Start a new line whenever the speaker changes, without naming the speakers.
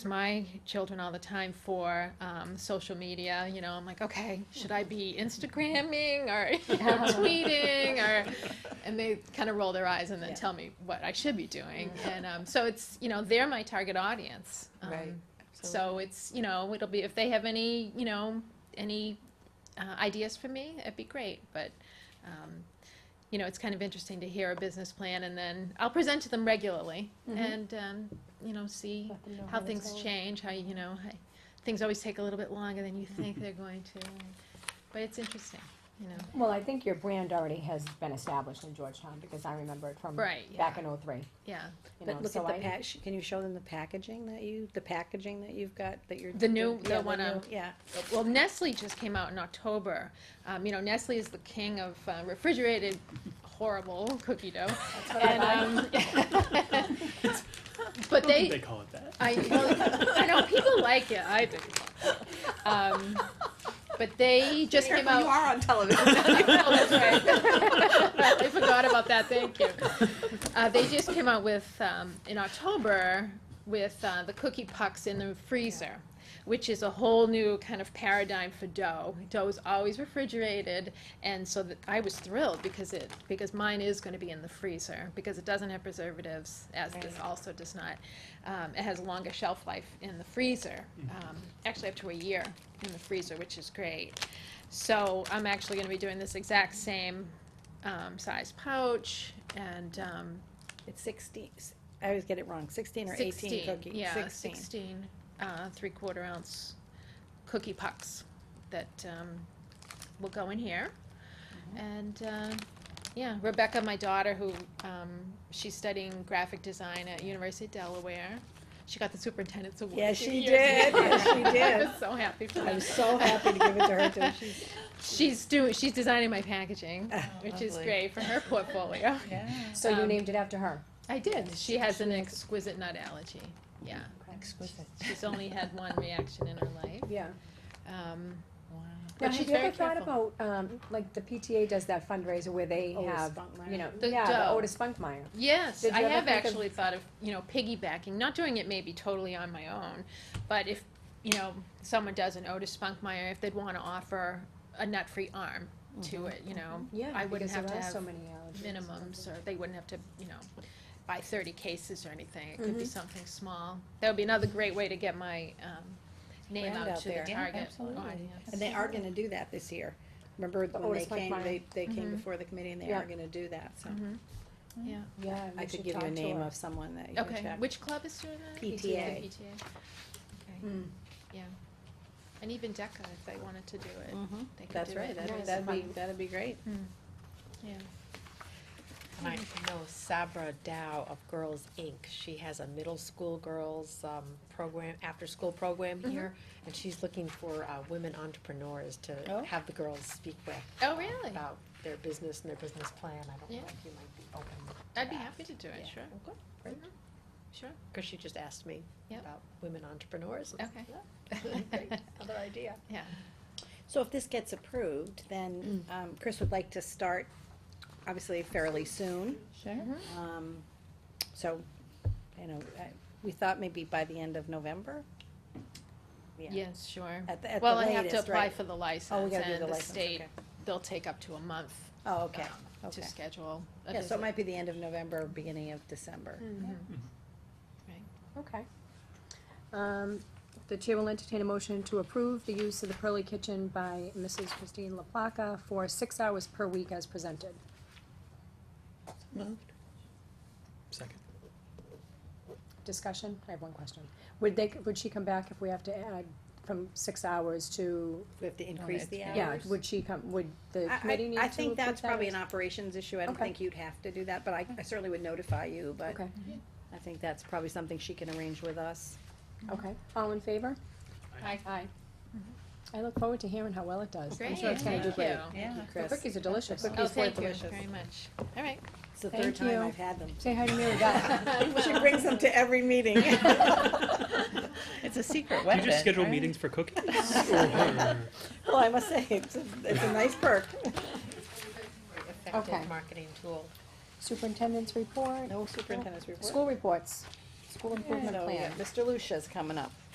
my children all the time for um, social media. You know, I'm like, okay, should I be Instagramming or tweeting or, and they kind of roll their eyes and then
Yeah. Mm-hmm.
tell me what I should be doing. And um, so it's you know they're my target audience. Um,
Right.
So it's you know it'll be if they have any you know any uh, ideas for me, it'd be great. But um, you know, it's kind of interesting to hear a business plan, and then I'll present to them regularly,
Mhm.
and um, you know, see how things change, how, you know, how- things always take a little bit longer than you think they're going to. But it's interesting, you know.
Well, I think your brand already has been established in Georgetown, because I remember it from
Right,
back
yeah,
in oh-three,
yeah.
you know,
But look
so
at the
I.
pack, sh- can you show them the packaging that you, the packaging that you've got, that you're.
The new-
yeah,
the one,
new-
um,
Yeah.
Well, Nestle just came out in October. Um, you know, Nestle is the king of uh, refrigerated horrible cookie dough.
That's what I
And,
thought.
um,
I
But
don't think
they,
they call it that.
I, well, I know, people like it, I do. Um, but they just came out.
on television.
Oh, that's right. I forgot about that, thank you. Uh, they just came out with, um, in October, with, uh, the cookie pucks in the freezer, which is a whole new kind of paradigm for dough. Dough is always refrigerated, and so th I was thrilled because it, because mine is gonna be in the freezer, because it doesn't have preservatives, as this also does not. Um, it has a longer shelf life in the freezer, um, actually up to a year in the freezer, which is great. So I'm actually gonna be doing this exact same, um, size pouch and, um,
It's sixteen, s- I always get it wrong, sixteen or eighteen
sixteen,
cookie.
yeah, sixteen, uh, three-quarter ounce cookie pucks that, um, will go in here.
Mm-hmm.
And, uh, yeah, Rebecca, my daughter, who, um, she's studying graphic design at University of Delaware. She got the superintendent's award.
Yeah,
a few
she
years
did.
ago.
Yeah, she did.
I was so happy for
I
her.
was so happy to give it to her too. She's- Oh,
She's doing, she's designing my packaging, which is
lovely.
great for her portfolio.
So you
um,
named it after her?
I did. She has an exquisite nut allergy. Yeah.
Exquisite.
She's only had one reaction in her life.
Yeah.
Um,
Wow.
Now,
she's
have you
very
ever thought about, um, like, the PTA does that fundraiser where they
Otis
have,
Spunkmeyer.
you know,
The
yeah, the
dough.
Otis Spunkmeyer.
yes,
Did
I
you ever
have
think of-
actually thought of, you know, piggybacking, not doing it maybe totally on my own, but if, you know, someone does an Otis Spunkmeyer, if they'd want to offer a nut free arm
Mm-hmm.
to it, you know,
Yeah,
I wouldn't
because
have
there
to
are
have
so many allergies.
minimums or they wouldn't have to, you know, buy thirty cases or anything. It
Mm-hmm.
could be something small. That would be another great way to get my, um, name
Brand
out
out
to the
there.
Yeah,
target
absolutely.
audience.
And they are gonna do that this year. Remember
The
when they
Otis Mike
came,
Meyer.
they, they came
Mhm.
before the committee and they
Yeah.
are gonna do that, so.
Mhm.
Yeah,
I
we
could
should
give you
talk
a
to
name
her.
of someone that you can
Okay,
Mm-hmm. check.
which club is doing that?
PTA.
The PTA. Okay,
Mm.
yeah. And even DECA, if they wanted to do it,
Mhm.
they could
That's
do
right,
it.
that'd,
Nice.
that'd be,
Fun.
that'd be great.
And I know Sabra Dow of Girls Inc., she has a middle school girls, um, program, after-school program
Mm-hmm.
here, and she's looking for, uh, women entrepreneurs
Oh.
to have the girls speak with.
Oh, really?
About their business and their business plan, I don't
Yeah.
know if you might be open,
I'd be happy to do it,
Yeah.
sure,
Okay, great.
Mhm. sure,
cause she just asked me
Yep.
about women entrepreneurs.
okay.
Other idea.
Yeah.
So if this gets approved, then, um, Chris would like to start, obviously fairly soon.
Sure.
Um, so, you know, I- we thought maybe by the end of November?
Yes, sure.
At the, at the
Well, I have to
latest,
apply
right?
for the
Oh, we
license
gotta do
and
the
the
license,
state,
okay.
they'll take up to a month
Oh, okay,
um, to
okay.
schedule a
Yeah, so
visit.
it might be the end of November, beginning of December.
Mhm.
Okay. Um, the chair will entertain a motion to approve the use of the Pearly Kitchen by Mrs. Christine LaPlaca for six hours per week as presented.
Second.
Discussion, I have one question. Would they, would she come back if we have to add from six hours to,
We
Oh,
have to increase the hours?
yeah, would she come, would the
I- I-
committee need to?
I think
approve that
that's probably
as-
an operations issue, I don't
Okay.
think you'd have to do that, but I, I certainly would notify you, but
Okay,
I think that's probably something she can arrange with us.
okay. All in favor?
Aye.
Aye. I look forward to hearing how well it does. I'm
Great,
sure it's gonna
thank
do
you.
great.
Yeah.
Uh, The cookies are delicious.
Oh,
It's quite
thank you
delicious.
very much. All right.
It's the
Thank
third time
you.
I've had them.
Say hi to Mary Beth.
She brings them to every meeting.
It's a secret
Do you just schedule meetings for cookies? Or her?
Well, I must say, it's a, it's a nice perk.
Okay.
Effective marketing tool.
Superintendent's report,
No superintendent's report.
school reports.
school improvement So, yeah, plan. Mr. Lucia's coming up.